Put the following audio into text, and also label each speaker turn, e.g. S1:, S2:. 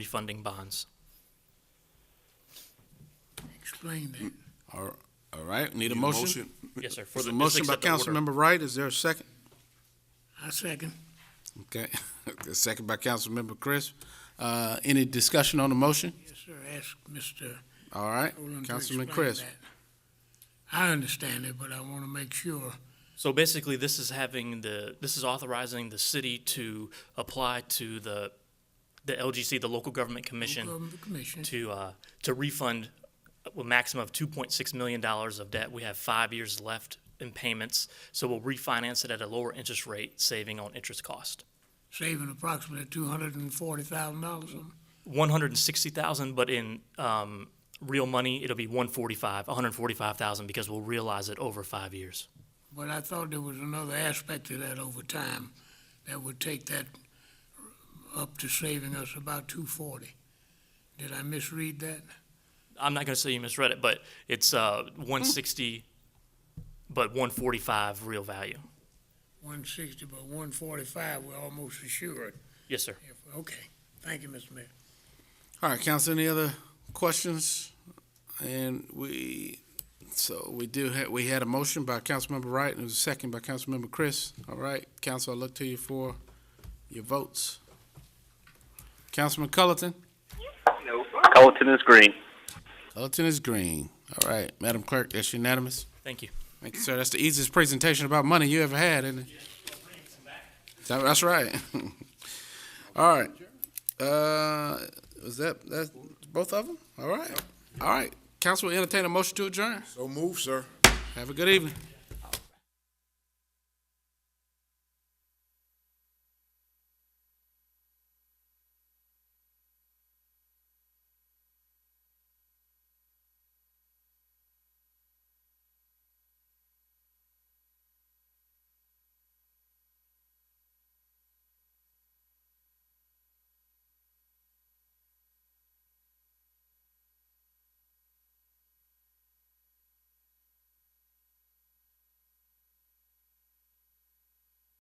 S1: refunding bonds.
S2: Explain that.
S3: All all right, need a
S4: Need a
S3: motion?
S1: Yes, sir. for
S3: There's
S1: the- just
S3: a motion by
S1: accept the order.
S3: Councilmember Wright, is there a second?
S2: I second.
S3: Okay, a second by Councilmember Chris. Uh, any discussion on the motion?
S2: Yes, sir. Ask Mr.
S3: All right,
S2: Rowland to
S3: Councilman
S2: explain
S3: Chris.
S2: that. I understand it, but I want to make sure.
S1: So basically, this is having the, this is authorizing the city to apply to the, the LGC, the local government commission,
S2: Government Commission.
S1: to, uh, to refund a maximum of two point six million dollars of debt. We have five years left in payments, so we'll refinance it at a lower interest rate, saving on interest cost.
S2: saving approximately two hundred and forty thousand dollars.
S1: One hundred and sixty thousand, but in, um, real money, it'll be one forty-five, hundred and forty-five thousand, because we'll realize it over five years.
S2: But I thought there was another aspect to that over time that would take that up to saving us about two forty. Did I misread that?
S1: I'm not going to say you misread it, but it's uh, 160, but 145 real value.
S2: One sixty, but one forty-five, we're almost assured.
S1: Yes, sir.
S2: If- Okay, thank you, Mr. Mayor.
S3: All right, council, any other questions? And we, so we do, ha- we had a motion by Councilmember Wright, and it was a second by Councilmember Chris. All right, council, I look to you for your votes. Councilman Culleton?
S5: Colleton is green.
S3: Culleton is green. All right, Madam Clerk, that's unanimous.
S1: Thank you.
S3: Thank you, sir. That's the easiest presentation about money you ever had, isn't it? That- That's right. All right. Uh, was that, that's both of them? All right. All right. Council will entertain a motion to adjourn.
S4: So move, sir.
S3: Have a good evening.